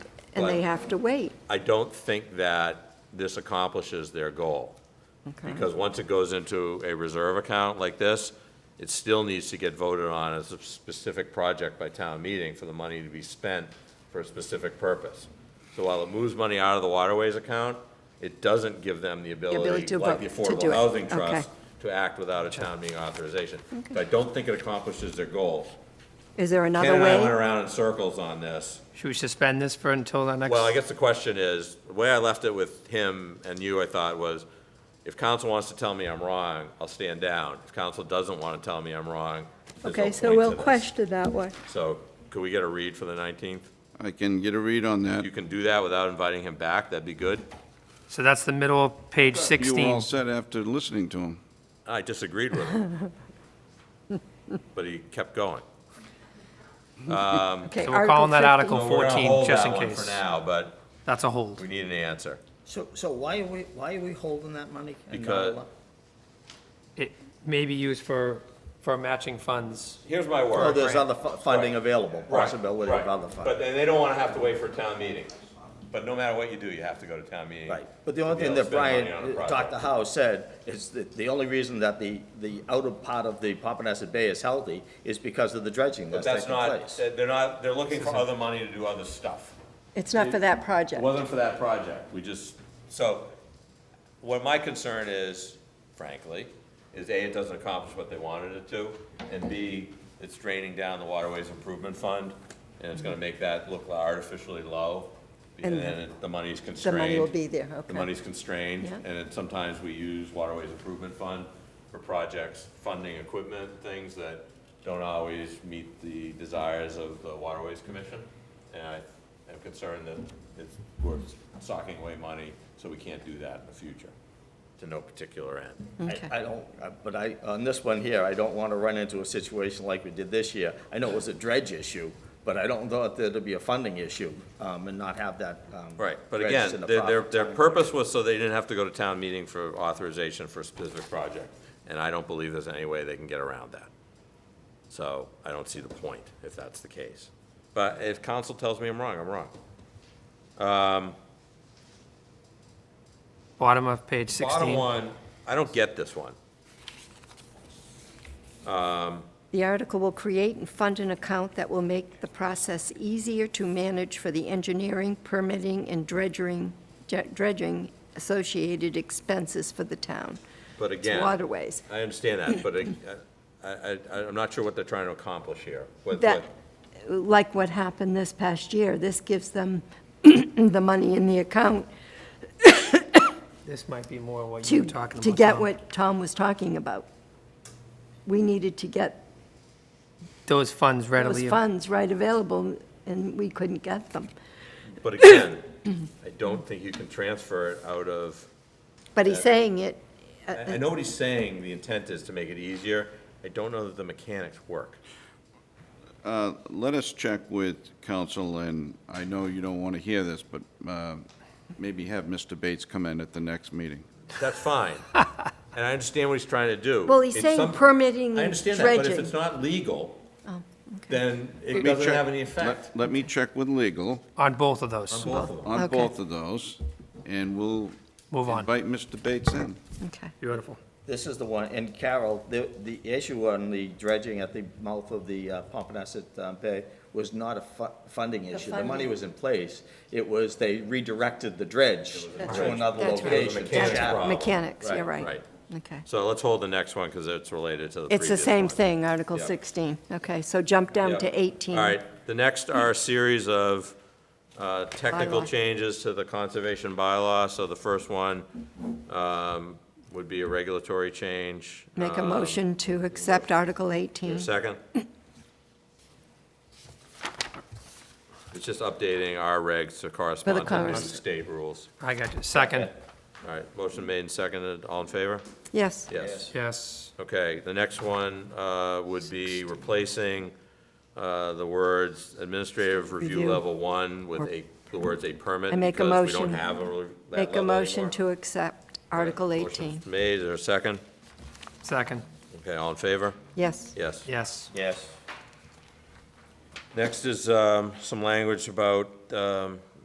and they But- have to wait. I don't think that this accomplishes their goal. Okay. Because once it goes into a reserve account like this, it still needs to get voted on as a specific project by town meeting for the money to be spent for a specific purpose. So while it moves money out of the waterways account, it doesn't give them the ability ability, to like the vote, to do Affordable it. Housing Okay. Trust, to act without a town meeting authorization. So I don't think it accomplishes their goal. Is there Ken another and I went way? around in circles on this. Should we suspend this for until the next? Well, I guess the question is, the way I left it with him and you, I thought, was if council wants to tell me I'm wrong, I'll stand down. If council doesn't want to tell me I'm wrong, there's no Okay, so point we'll to this. question that one. So could we get a read for the 19th? I can get a read on that. You can do that without inviting him back, that'd be good. So that's the middle of page You were 16. all set after listening to him. I disagreed with him. But he kept going. Okay, So we're calling that So Article we're gonna 14, hold just that in one case. For now, but That's a hold. we need an answer. So, so why are we, why are we holding that money? and not Because- allow- It may be used for, for matching funds. Here's my word. Oh, there's other fu- funding available, Right, possibility of right. other But funding. then they don't want to have to wait for a town meeting. But no matter what you do, you have to go to town meeting. Right, but the to only be thing able that to spend money on a Brian, uh, project. Dr. Howe said, is that the only reason that the, the outer part of the Pompanesett Bay is healthy is because of the dredging But that's that's not, taking place. they're not, they're looking for other money to do other stuff. It's not for that project. It wasn't for that project, we just, so, what my concern is, frankly, is A, it doesn't accomplish what they wanted it to, and B, it's draining down the waterways improvement fund, and it's gonna make that look artificially low, and And then it- the money's The constrained. money will be there, okay. The money's constrained, Yeah. and it- sometimes we use waterways improvement fund for projects, funding equipment, things that don't always meet the desires of the waterways commission. And I am concerned that it's, we're socking away money, so we can't do that in the future, to no particular end. Okay. I I don't, uh, but I, on this one here, I don't want to run into a situation like we did this year. I know it was a dredge issue, but I don't thought there'd be a funding issue um, and not have that. um, Right, but dredged again, in the their, their, proper their time. purpose was so they didn't have to go to town meeting for authorization for a specific project, and I don't believe there's any way they can get around that. So I don't see the point, if that's the case. But if council tells me I'm wrong, I'm wrong. Bottom of page Bottom 16. one, I don't get this one. The article will create and fund an account that will make the process easier to manage for the engineering, permitting, and dredging, dredging associated expenses for the town. But It's again, waterways. I understand that, but I, I, I- I'm not sure what they're trying to accomplish here. What- That, what- like what happened this past year, this gives them the money in the account This might be more what you to, were talking about. to get Tom. what Tom was talking about. We needed to get Those funds those readily. funds right available, and we couldn't get them. But again, I don't think you can transfer it out of But he's saying it, uh, I I know what he's saying, the intent is to make it easier. I don't know that the mechanics work. Uh, Let us check with council, and I know you don't want to hear this, but uh, maybe have Mr. Bates come in at the next meeting. That's fine. And I understand what he's trying to do. Well, he's In saying some- permitting I and understand that, but if dredging. Oh, it's not legal, okay. then it Let me doesn't check- have any let- effect Let me check with legal On both of those. on both of them. on Okay. both of those, and we'll Move on. invite Mr. Bates in. okay. Beautiful. This is the one, and Carol, the, the issue on the dredging at the mouth of the uh, Pompanesett uh, Bay was not a fu- funding issue. The money funding. was in place. It was they redirected the dredge to another That's right. location. It was a That's problem. right. Mechanics, you're Right, right. right. Okay. So let's hold the next one because it's related to the It's previous the same one. thing, Article Yeah. 16. Okay, so jump down Yep. to 18. All right, the next are a series of uh, technical Bylaw. changes to the conservation bylaw. So the first one um, would be a regulatory change. Make a Um, motion to accept Article 18. Second? It's just updating our regs to correspond to the new corres- state rules. I got you. Second, All right, motion made and seconded, all in favor? Yes. Yes. yes. Okay, the next one uh, would be replacing uh, the words administrative review Review. level one with a, the words a permit. I make a because We motion- don't have a, re- that Make a level motion anymore. to accept Article Motion's 18. Made, is there a second? Second, Okay, all in favor? Yes. Yes. yes. Yes. Next is um, some language about um,